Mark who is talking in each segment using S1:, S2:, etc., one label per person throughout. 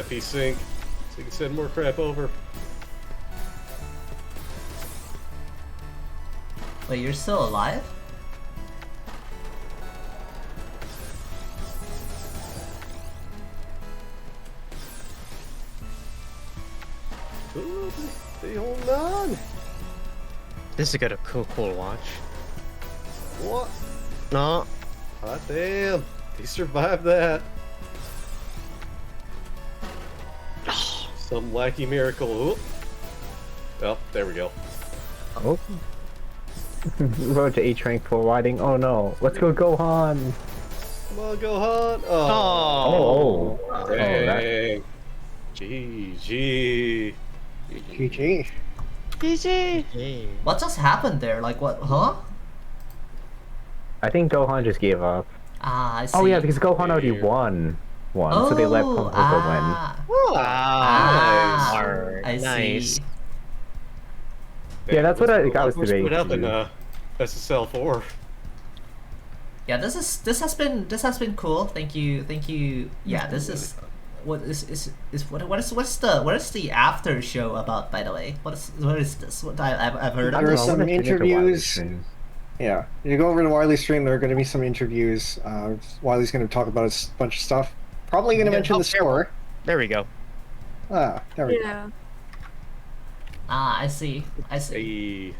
S1: FE sync, so you can send more crap over.
S2: Wait, you're still alive?
S1: Ooh, they hold on.
S3: This is gonna cool, cool watch.
S1: What?
S3: No,
S1: Hot damn! They survived that. Some wacky miracle. Oop. Well, there we go.
S4: Oh. Road to H rank for riding. Oh no. Let's go Gohan.
S1: Come on, Gohan. Oh,
S3: Oh.
S4: Oh, that-
S1: dang. GG.
S4: GG.
S3: GG.
S2: What just happened there? Like what? Huh?
S4: I think Gohan just gave up.
S2: Ah, I see. Oh,
S4: Oh yeah, because Gohan already
S1: Weird.
S4: won one, so they let Pump win.
S2: ah,
S3: Wow.
S2: ah, I
S3: Nice.
S2: see.
S4: Yeah, that's what I- I was
S1: Put up in
S4: debating.
S1: uh, SSL four.
S2: Yeah, this is this has been this has been cool. Thank you, thank you. Yeah, this is what is is, is what what is what's the what is the after show about? By the way, what is what is this? What I, I've I've heard
S5: There were
S2: of.
S4: Oh,
S5: some
S4: we're gonna get to Wiley's
S5: interviews.
S4: soon.
S5: Yeah, you go over to Wiley's stream. There are going to be some interviews. Uh, Wiley's going to talk about a s- bunch of stuff. Probably going to
S3: Yeah,
S5: mention
S3: oh,
S5: the store.
S3: There we go.
S5: Ah, there we go.
S6: Yeah.
S2: Ah, I see, I see.
S1: Hey.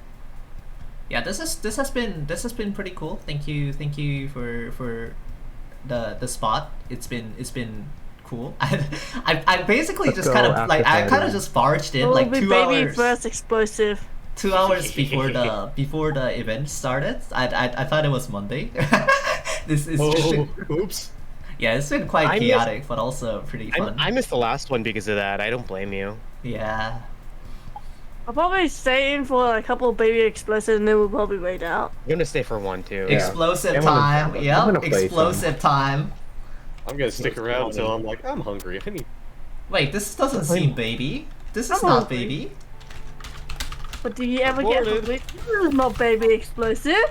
S2: Yeah, this is this has been this has been pretty cool. Thank you, thank you for for the the spot. It's been it's been cool. I I, I basically
S4: Let's
S2: just kind
S4: go
S2: of like I
S4: after
S2: kind of
S4: party.
S2: just barged in
S6: What
S2: like
S6: will be
S2: two
S6: baby
S2: hours
S6: first explosive.
S2: two hours before the before the event started. I I, I thought it was Monday. this is
S1: Oh, oops.
S2: yeah, it's been quite
S3: I miss-
S2: chaotic, but also pretty
S3: I,
S2: fun.
S3: I missed the last one because of that. I don't blame you.
S2: Yeah.
S6: I'll probably stay in for a couple of baby explosives and then we'll probably wait out.
S3: I'm gonna stay for one too.
S4: Yeah.
S2: Explosive
S4: I'm gonna-
S2: time.
S4: I'm gonna
S2: Yep.
S4: play some.
S2: Explosive time.
S1: I'm gonna stick around until I'm like, I'm hungry. I need.
S2: Wait, this doesn't
S3: I'm-
S2: seem baby. This is
S6: I'm
S2: not
S6: hungry.
S2: baby.
S6: But do you ever get
S1: Aborted.
S6: hungry? This is not baby explosive.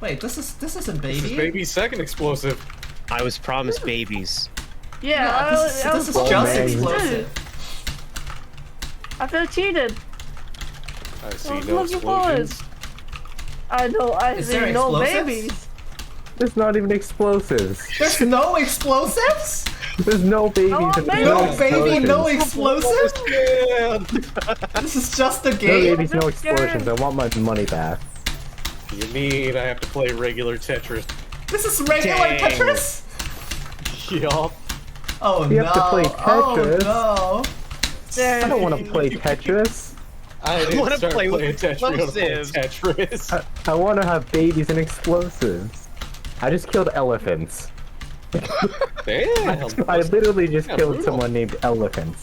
S2: Wait, this is this isn't
S1: This is
S2: baby.
S1: baby's second explosive.
S3: I was promised babies.
S6: Yeah,
S2: Yeah, Uh,
S6: I,
S2: this is,
S6: was- I
S2: this is
S6: was
S2: just
S4: man.
S6: promised to.
S2: explosive.
S6: I feel cheated.
S1: I see
S6: I was
S1: no
S6: looking forward.
S1: explosions.
S6: I know, I
S2: Is
S6: see
S2: there
S6: no
S2: explosives?
S6: babies.
S4: There's not even explosives.
S2: There's no explosives?
S4: There's no babies.
S6: No
S4: and
S6: baby.
S2: No baby, no
S4: explosions.
S2: explosive?
S1: Yeah.
S2: This is just a
S4: No
S2: game?
S4: babies, no explosions. I want my money back.
S1: You mean I have to play regular Tetris?
S2: This is regular
S3: Dang.
S2: Tetris?
S1: Yup.
S2: Oh
S4: You
S2: no.
S4: have to play Tetris.
S2: Oh
S4: I don't want to play Tetris.
S1: I didn't
S3: wanna
S1: start
S3: play with
S1: playing Tetris. I wanna play
S3: explosives.
S1: Tetris.
S4: I, I want to have babies and explosives. I just killed elephants.
S1: Damn.
S4: I literally just
S1: Yeah,
S4: killed
S1: brutal.
S4: someone named Elephants.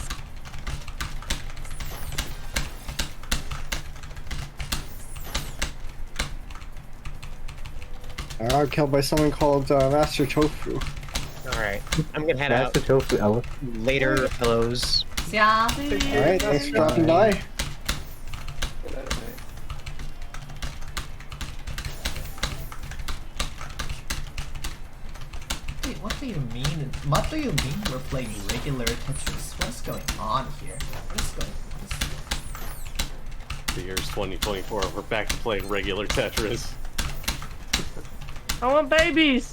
S5: I got Uh, killed by someone called uh, Master Tofu.
S3: All right, I'm gonna head
S4: That's
S3: out
S4: the tofu elephant.
S3: later, fellows.
S2: no. Yeah.
S5: All right, thanks for dropping by.
S2: Wait, what do you mean? What do you mean we're playing regular Tetris? What's going on here? What's going on?
S1: The year's 2024. We're back to playing regular Tetris.
S6: I want babies.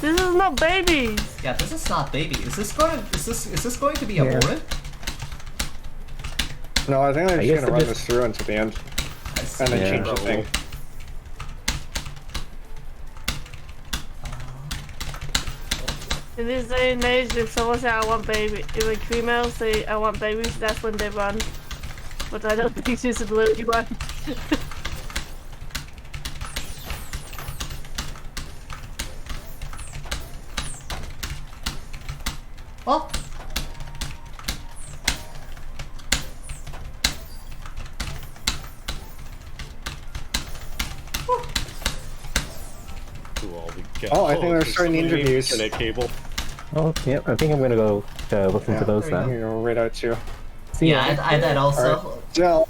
S6: This is not babies.
S2: Yeah, this is not baby. Is this going to is this is this going to be aborted?
S5: No, I think I'm
S4: I guess
S5: just going
S4: it
S5: to run
S4: is-
S5: this through until the end,
S2: I see.
S5: and then
S4: Yeah.
S5: change the thing.
S6: In this day and age, if someone says I want baby, if a female say I want babies, that's when they run. But I don't think she's a little one.
S2: Oh,
S1: Who all we got?
S5: Oh, I think they're
S1: there's
S5: starting the
S1: somebody named
S5: interviews.
S1: Internet cable.
S4: Oh, yeah. I think I'm gonna go uh, listen
S5: Yeah.
S4: to those
S2: There
S5: I'm
S4: now.
S5: going to go right out too.
S4: See
S2: yeah,
S4: ya.
S2: I, I did also.
S5: All Jill,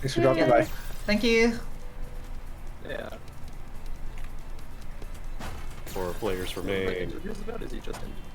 S5: thanks for dropping by.
S2: Thank you.
S7: Yeah.
S1: Four players
S7: Like,
S1: remain.
S7: interviews about is he just in?